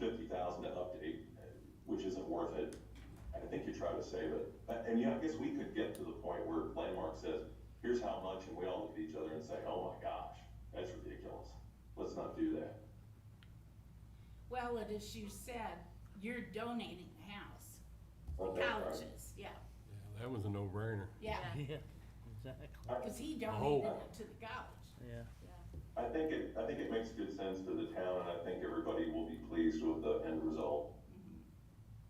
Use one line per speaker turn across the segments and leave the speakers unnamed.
to update, which isn't worth it. I think you try to save it. But- And yeah, I guess we could get to the point where Landmark says, here's how much, and we all look at each other and say, oh my gosh, that's ridiculous. Let's not do that.
Well, and as you said, you're donating the house,
Oh, Okay, all right.
colleges, yeah,
Yeah, that was a no-brainer.
yeah,
Yeah, exactly,
cause he
Oh.
donated it to the college.
yeah.
I think it, I think it makes good sense to the town, and I think everybody will be pleased with the end result.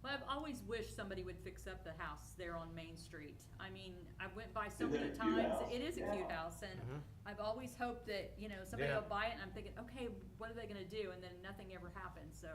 Well, I've always wished somebody would fix up the house there on Main Street. I mean, I went by so
Isn't
many
it a cute
times.
house?
It is a
Yeah.
cute house and I've always hoped that, you know, somebody
Yeah.
will buy it and I'm thinking, okay, what are they gonna do? And then nothing ever happens, so.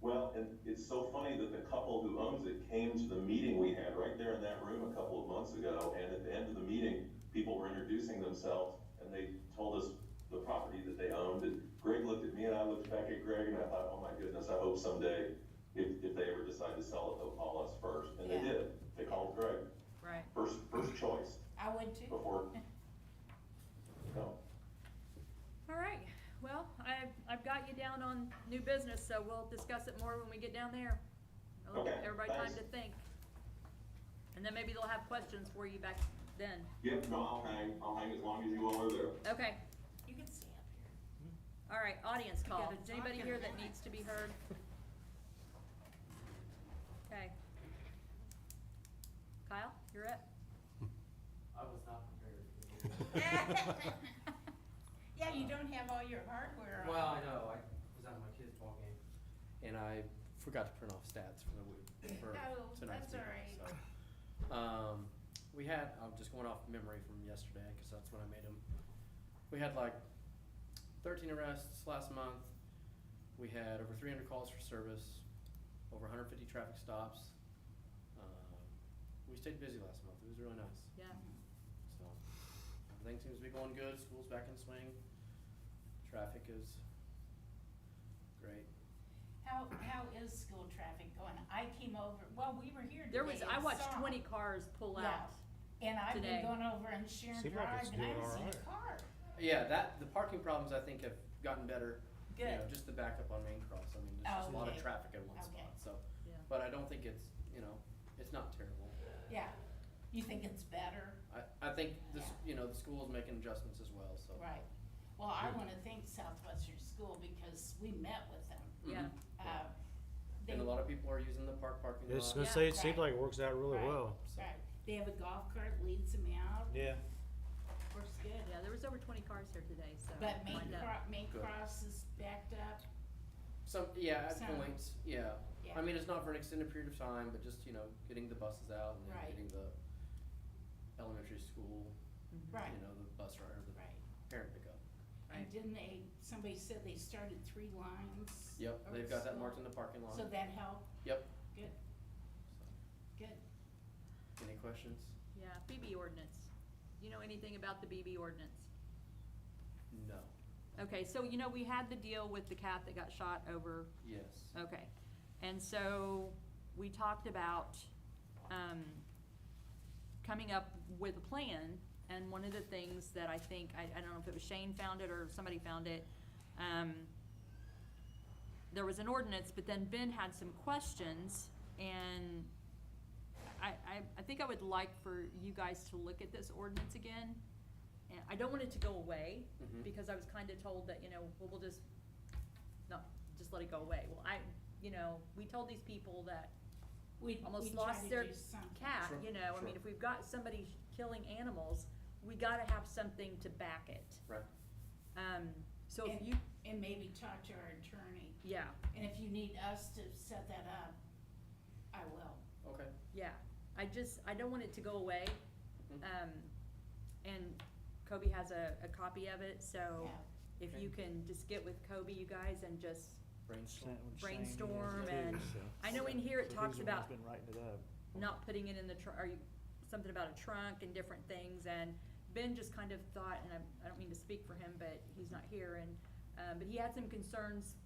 Well, and it's so funny that the couple who owns it came to the meeting we had right there in that room a couple of months ago, and at the end of the meeting, people were introducing themselves, and they told us the property that they owned, and Greg looked at me, and I looked back at Greg, and I thought, oh my goodness, I hope someday, if, if they ever decide to sell it, they'll call us first, and they
Yeah.
did, they called Greg,
Right.
first, first choice,
I would too.
before, no.
All right, well, I've, I've got you down on new business, so we'll discuss it more when we get down there. I'll give
Okay,
everybody time
thanks.
to think. And then maybe they'll have questions for you back then.
Yep, no, I'll hang, I'll hang as long as you all are there.
Okay,
You can stay up here.
all right, audience call.
gotta
Is anybody
talk
here
in
that
minutes.
needs to be heard? Okay. Kyle, you're up.
I was not prepared.
Yeah, you don't have all your hardware on.
Well, I know, I was at my kid's ball game, and I forgot to print off stats for the week, for
No,
tonight's
Oh, that's
meeting,
all right.
so. Um, we had, I'm just going off memory from yesterday, cause that's when I made them. We had like thirteen arrests last month, we had over three hundred calls for service, over hundred fifty traffic stops. Um, we stayed busy last month, it was really nice.
Yeah,
So, everything seems to be going good, school's back in swing, traffic is great.
How, how is school traffic going? I came over, well, we were here today.
there was, I
and
watched
saw.
twenty cars pull out.
And I've been
today.
going over and Sharon
Seemed like
Drive
it's
and I
doing
haven't seen a
alright.
car.
Yeah, that, the parking problems I think have gotten better. You know,
Good.
just the backup on Main Cross, I mean, there's just a lot of
Okay.
traffic in one
Okay.
spot, so.
Yeah.
But I don't think it's, you know, it's not terrible.
Yeah. You think it's better?
I, I think this, you know, the school's making adjustments as well, so.
Right. Well, I wanna thank Southwestern School because we met with them.
Yeah,
Mhm.
Uh, They,
And a lot of people are using the park parking
I
lot.
was gonna
Yeah,
say, it seemed
right.
like it works out really
Right.
well.
right, they have a golf cart, leads them out,
Yeah.
works good.
yeah, there was over twenty cars here today, so.
But Main
lined up.
Cro- Main
Good.
Cross is backed up,
Some, yeah, at
Some.
points, yeah.
yeah,
I mean, it's not for an extended period of time, but just, you know, getting the buses out and
Right.
then getting the elementary school, you
right,
know, the bus rider, the
right.
parent pickup.
And didn't they, somebody said they started three lines?
Yep,
or
they've got that
so-
marked in the parking lot.
So that helped?
Yep.
Good, good.
So, Any questions?
Yeah, BB ordinance. You know anything about the BB ordinance?
No.
Okay, so you know, we had the deal with the cat that got shot over,
Yes.
okay. And so we talked about, um, coming up with a plan. And one of the things that I think, I, I don't know if it was Shane found it or somebody found it, um, there was an ordinance, but then Ben had some questions and I, I, I think I would like for you guys to look at this ordinance again. And I don't want it to go away,
Mhm.
because I was kinda told that, you know, well, we'll just, no, just let it go away. Well, I, you know, we told these people that
We,
Almost
we try
lost
to
their
do something.
cat,
Sure,
you know, I mean,
sure.
if we've got somebody killing animals, we gotta have something to back it.
Right.
Um, so if
And-
you,
And maybe talk to our attorney,
yeah,
and if you need us to set that up, I will.
Okay.
yeah, I just, I don't want it to go away.
Mhm.
Um, and Kobe has a, a copy of it, so
Yeah.
if you can just get with Kobe, you guys, and just,
Brainstorm.
Brainstorm and- I know in here it talks about
Been writing it up.
not putting it in the tr- or you, something about a trunk and different things, and Ben just kind of thought, and I, I don't mean to speak for him, but he's not here, and, um, but he had some concerns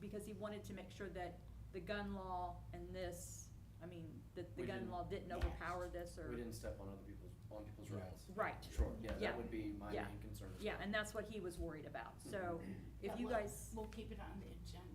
because he wanted to make sure that the gun law and this, I mean, that the
We
gun
didn't-
law didn't
Yes.
overpower this or.
We didn't step on other people's, on people's
Right.
rights.
Right,
Sure, yeah,
Yeah.
that would be my
Yeah.
main concern as well.
yeah, and that's what he was worried about, so if
But
you
we'll-
guys,
We'll keep it on the agenda.